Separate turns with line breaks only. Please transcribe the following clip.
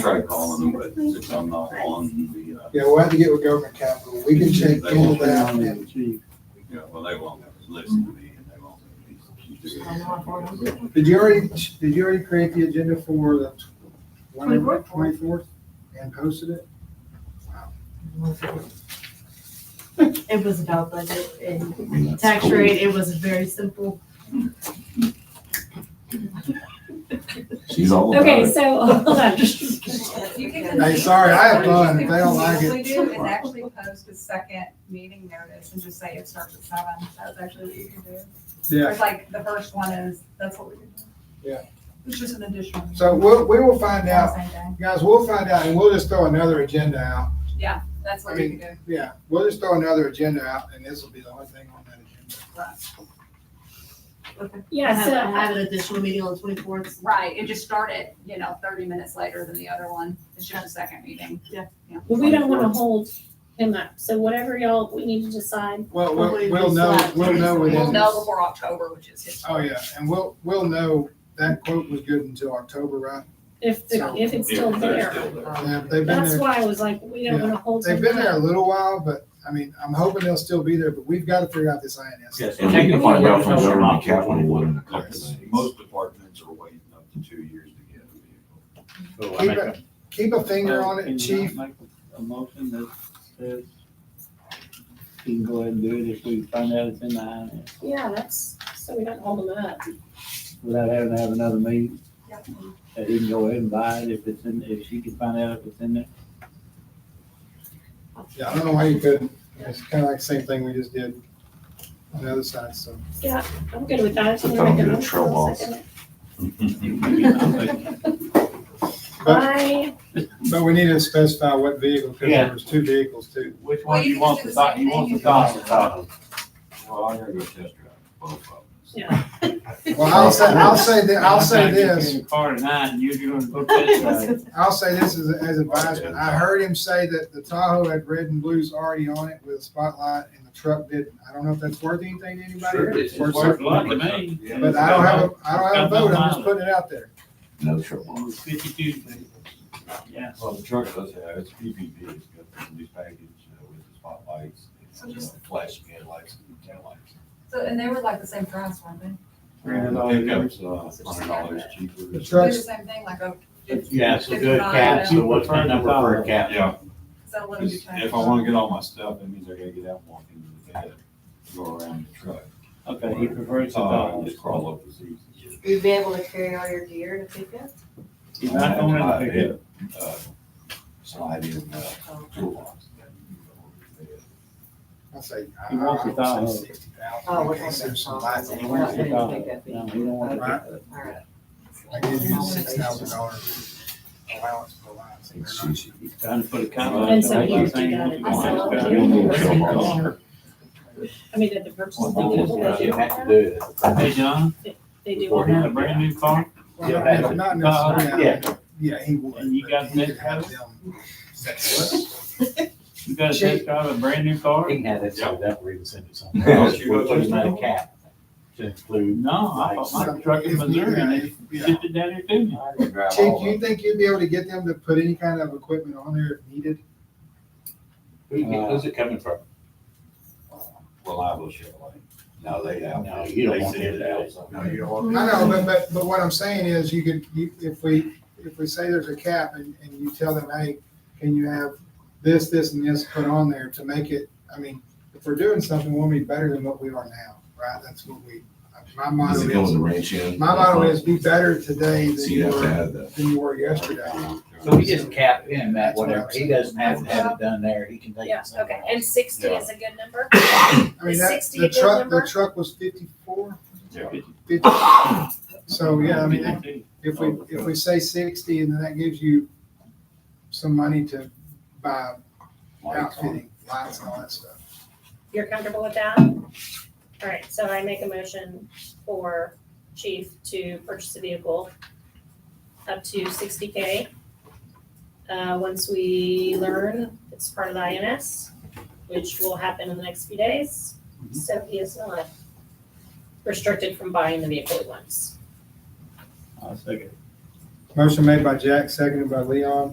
tried calling them, but since I'm not on the, uh,
Yeah, we'll have to get with government capital. We can check all that and
you know, well, they won't listen to me and they won't.
Did you already, did you already create the agenda for the whenever,
24th?
twenty-fourth and posted it?
It was about budget and tax rate. It was very simple.
She's all about
Okay,
it.
so, hold on.
Hey, sorry, I have fun. If they don't like it.
What you can do is actually post a second meeting notice and just say it starts at seven. That's actually what you can do.
Yeah,
It's like, the first one is, that's what we can do.
Yeah.
It's just an additional.
so we'll, we will find out.
Same day.
Guys, we'll find out and we'll just throw another agenda out.
Yeah, that's what we can do.
Yeah, we'll just throw another agenda out and this will be the only thing on that agenda.
I
Yeah,
have, I
so,
have an additional meeting on the twenty-fourth.
Right, and just start it, you know, thirty minutes later than the other one. It's just a second meeting.
but we don't wanna hold him up, so whatever y'all, we need to decide.
Well, we'll, we'll know, we'll know
We'll
within
know
this.
before October, which is his.
Oh, yeah, and we'll, we'll know that quote was good until October, right?
If, the- if it's still
Yeah, they're
there.
Um,
there.
Yeah, They've been
That's
there,
why I was like, we don't wanna hold
they've
him
been there a
up.
little while, but I mean, I'm hoping they'll still be there, but we've got to figure out this INS.
Yes.
And we can find out from
Technically, we're
government
not
capital what
holding
it
up a couple
costs.
days.
Most departments are waiting up to two years to get a vehicle.
So I
Keep
make a-
it, keep a finger on
uh,
it, chief.
Make a motion that says you can go ahead and do it if we find out it's in the INS
Yeah, that's, so we don't hold him up.
without having to have another meeting. That he can go ahead and buy it if it's in, if she can find out if it's in there.
Yeah, I don't know why you couldn't. It's kind of like the same thing we just did on the other side, so.
I'm good with that.
Since
I'm
I'm good at
gonna make a motion,
trail
I'll
balls.
second it.
But,
I,
but we need to specify what vehicle, because there was two vehicles too.
Which
Well,
one do
you can
you want
do
to
the
talk,
same
you want
thing
to
you
talk
did.
about?
Well, I'm gonna go test drive both of them.
yeah.
Well, I'll say, I'll say, thi- I'll say
I'm trying to get you
this,
in the Car tonight and you're gonna book this ride.
I'll say this as, as advisement. I heard him say that the Tahoe had red and blues already on it with a spotlight and the truck didn't. I don't know if that's worth anything to anybody.
Sure
or
it is.
it's worth
It's worth a
something.
lot to me.
Yeah.
But I don't have a, I don't have a vote. I'm just
It's got no mileage.
putting it out there.
No trouble.
It was Fifty-two. Yeah.
Well, the truck does have, it's PPP, it's got the new package uh, with the spotlights,
So
and
just-
uh, flashing headlights and taillights.
So, and they were like the same price, weren't they?
Pickup's uh, hundred dollars cheaper.
The
They were
truck-
the same thing, like oh, a,
Yeah, so good cap, so what's my number for a cap?
Yeah,
so what
'cause
do you
if I wanna get all my stuff, that means I gotta get out, walk into the bed, go around the truck.
Okay, he prefers to
Uh,
talk.
Just crawl up the seats. and get it.
You'd be able to carry all your gear to pick up?
He's not going in the
I
pickup.
had, uh, Slide in, uh,
Oh,
toolbox.
I say, I
He wants
I
the
would say
Tahoe.
sixty thousand.
Oh, we're gonna say something.
He wants the Tahoe. No, he don't want the
Right.
pickup.
I give you six thousand dollars allowance for lines. and they're not cheap.
Trying to put a comment.
And so you do that. I sell it to you.
You'll
you
need trail
send it
balls.
over. I mean, that the purchase they do.
Yeah, You have to do it.
Hey, John,
They do
you
on
got
that.
a brand new car?
Well, not- Not necessarily.
Yeah.
Yeah, he would.
And you
but
got
he could
next
have
one?
them set
You got a test drive a brand new car?
He can have it, so that we can send it somewhere
Yeah.
else. We're putting that cap to include.
No, I bought my truck in Missouri and they
Yeah.
shipped it down here to me.
up. Chief, do you think you'd be able to get them to put any kind of equipment on there if needed?
Who- Who's it coming from?
Uh, Reliable Chevrolet.
No, they don't. No, you don't want it out.
No, you don't
I
want.
know, but, but, but what I'm saying is you could, you, if we, if we say there's a cap and, and you tell them, hey, can you have this, this and this put on there to make it, I mean, if we're doing something, we'll be better than what we are now, right? That's what we, my motto
Does it go in
is,
the ranch in?
my motto is be better today than
So you
you
have to
were,
have that.
than you were yesterday.
So we just cap him at whatever. He doesn't have to have it done there. He can take
Yeah,
it
okay,
somewhere.
and sixty is a good number?
I mean,
Is
that,
60 a
the
good
truck, the
number?
truck was fifty-four,
Yeah.
fifty. So, yeah, I mean,
mean.
if we, if we say sixty, and then that gives you some money to buy
Lights on.
outfitting, lights and all that stuff.
You're comfortable with that? All right, so I make a motion for chief to purchase a vehicle up to sixty K. Uh, once we learn it's part of the INS, which will happen in the next few days, so he is not restricted from buying the vehicle he wants.
I'll second.
Motion made by Jack, seconded by Leon.